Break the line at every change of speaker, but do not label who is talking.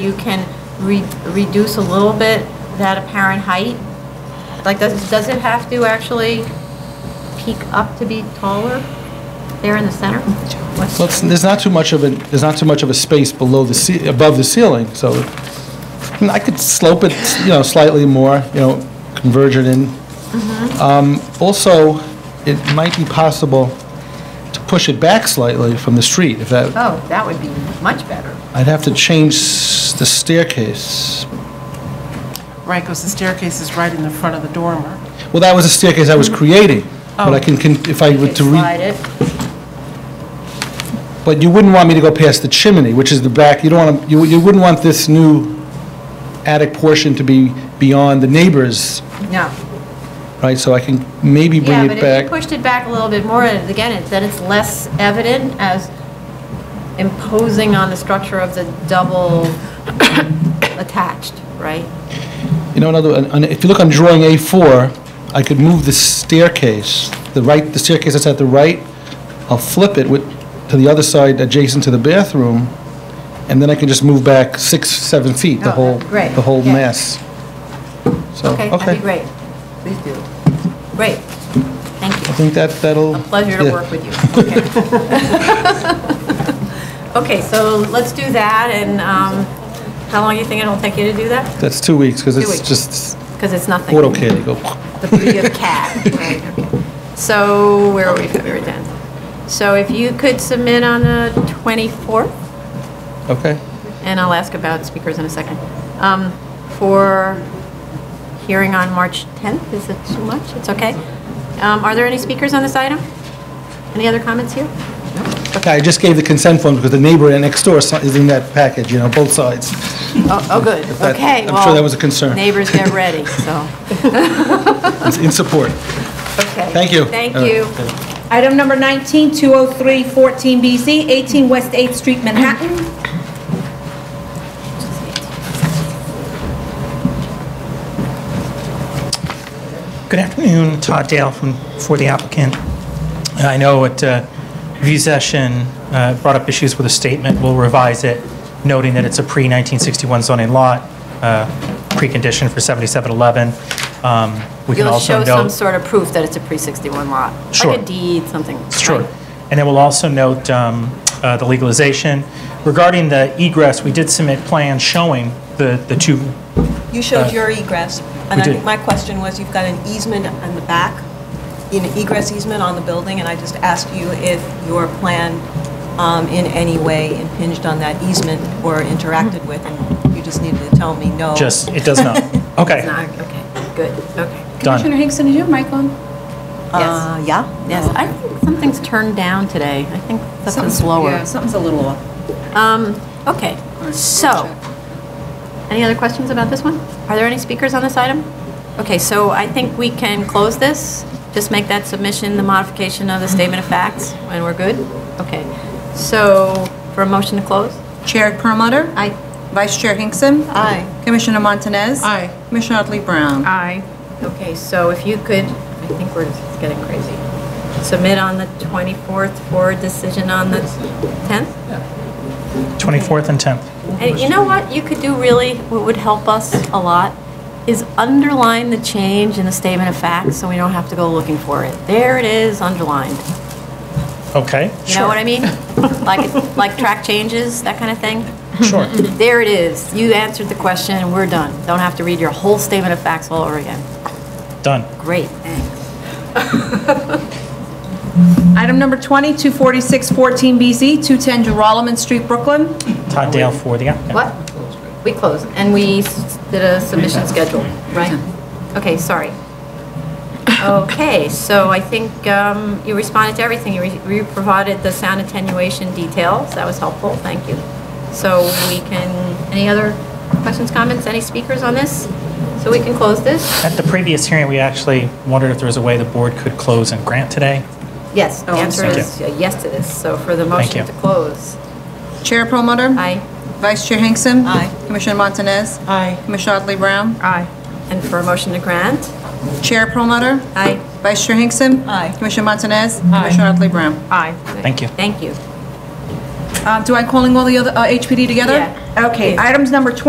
you can re- reduce a little bit that apparent height? Like, does, does it have to actually peak up to be taller there in the center? What's-
Well, it's- there's not too much of a, there's not too much of a space below the, ce- above the ceiling, so and I could slope it, you know, slightly more, you know, converge it in.
Mm-hmm.
Um, Also, it might be possible to push it back slightly from the street, if that,
Oh, that would be much better.
I'd have to change s- the staircase.
Right, because the staircase is right in the front of the dormer.
Well, that was a staircase I was creating, but I can, can- if I were to re...
Mm-hmm. Oh. Slide it.
But you wouldn't want me to go past the chimney, which is the back, you don't want, to. you you wouldn't want this new attic portion to be beyond the neighbors,
No.
right? So I can maybe bring
Yeah,
it
but if you
back.
pushed it back a little bit more, and again, it- then it's less evident as imposing on the structure of the double attached, right?
You know, another, and- and if you look on drawing A4, I could move the staircase, the right, the staircase that's at the right, I'll flip it with, to the other side adjacent to the bathroom, and then I can just move back six, seven feet, the
Oh,
whole,
great,
the whole
yeah.
mess. So,
Okay, that'd be great. Please do. Great, thank
I
you.
think that, that'll...
A pleasure to
yeah.
work with you. Okay. Okay, so let's do that, and um, how long do you think it'll take you to do that?
That's two weeks, because
weeks.
it's just
Because it's nothing.
AutoCAD, you go,
The beauty of CAD, right, okay. So, where are we, February 10th? So if you could submit on the 24th,
okay,
and I'll ask about speakers in a second, um, for hearing on March 10th, is it too much? It's okay. Um, Are there any speakers on this item? Any other comments here?
okay. I just gave the consent form, because the neighbor next door is is in that package, you know, both sides.
Oh, oh, good,
that-
okay.
I'm sure
well,
that was a concern.
Neighbors get ready, so.
It's in support.
Okay.
Thank you. Uh,
Thank
All right.
you.
Item number 19, 203 14BZ, 18 West 8th Street, Manhattan.
Good afternoon, Todd Dale from, for the applicant. I know at uh, review session, uh, brought up issues with a statement, we'll revise it, noting that it's a pre-1961 zoning lot, uh, precondition for 7711. Um, We can
You'll
also
show
note.
some sort of proof that it's a pre-61 lot.
Sure.
Like a deed, something. right?
Sure. And then we'll also note um, uh, the legalization. Regarding the egress, we did submit plans showing the the two,
You showed your egress,
we
and I
did.
think my question was, you've got an easement on the back, an egress easement on the building, and I just asked you if your plan um, in any way impinged on that easement or interacted with, and you just needed to tell me no.
Mm. just, it does not. Okay,
Not- Okay, good, okay. Um,
done.
Hinkson, is your mic on?
Uh, Yeah?
Yes, I think something's turned down today. I think something's
Yeah,
lower.
something's a little off.
Um, okay, so, any other questions about this one? Are there any speakers on this item? Okay, so I think we can close this, just make that submission, the modification of the statement of facts, and we're good? Okay, so, for a motion to close?
Chair Perlmutter? Aye. Vice Chair Hinkson?
Aye.
Commissioner Montanez?
Aye.
Commissioner Otley Brown?
Aye. Okay, so if you could, I think we're just getting crazy. Submit on the 24th for a decision on the 10th?
24th and 10th.
And you know what you could do really, what would help us a lot, is underline the change in the statement of facts so we don't have to go looking for it. There it is, underlined.
Okay,
You know what I mean? Like, like track changes, that kind of thing.
sure.
There it is. You answered the question and we're done. Don't have to read your whole statement of facts all over again.
Done.
Great, thanks.
Item number 20, 246 14BZ, 210 Geralman Street, Brooklyn.
Todd Dale for the applicant.
What? We closed and we s- did a submission schedule, right? Okay, sorry. Okay, so I think um, you responded to everything. You re- you provided the sound attenuation details. That was helpful, thank you. So we can, any other questions, comments, any speakers on this? So we can close this?
At the previous hearing, we actually wondered if there was a way the board could close and grant today.
Yes, the
Oh, I'm
answer
sorry.
is a yes to this. So for the
Thank
motion
you.
to close,
Chair Perlmutter?
aye.
Vice Chair Hinkson?
Aye.
Commissioner Montanez?
Aye.
Commissioner Otley Brown?
Aye. And for a motion to grant,
Chair Perlmutter?
aye.
Vice Chair Hinkson?
Aye.
Commissioner Montanez? Aye. Commissioner Otley Brown?
Aye.
Thank you.
Thank you.
Uh, Do I calling all the other uh, HPD together?
Yeah.
Okay, items number 20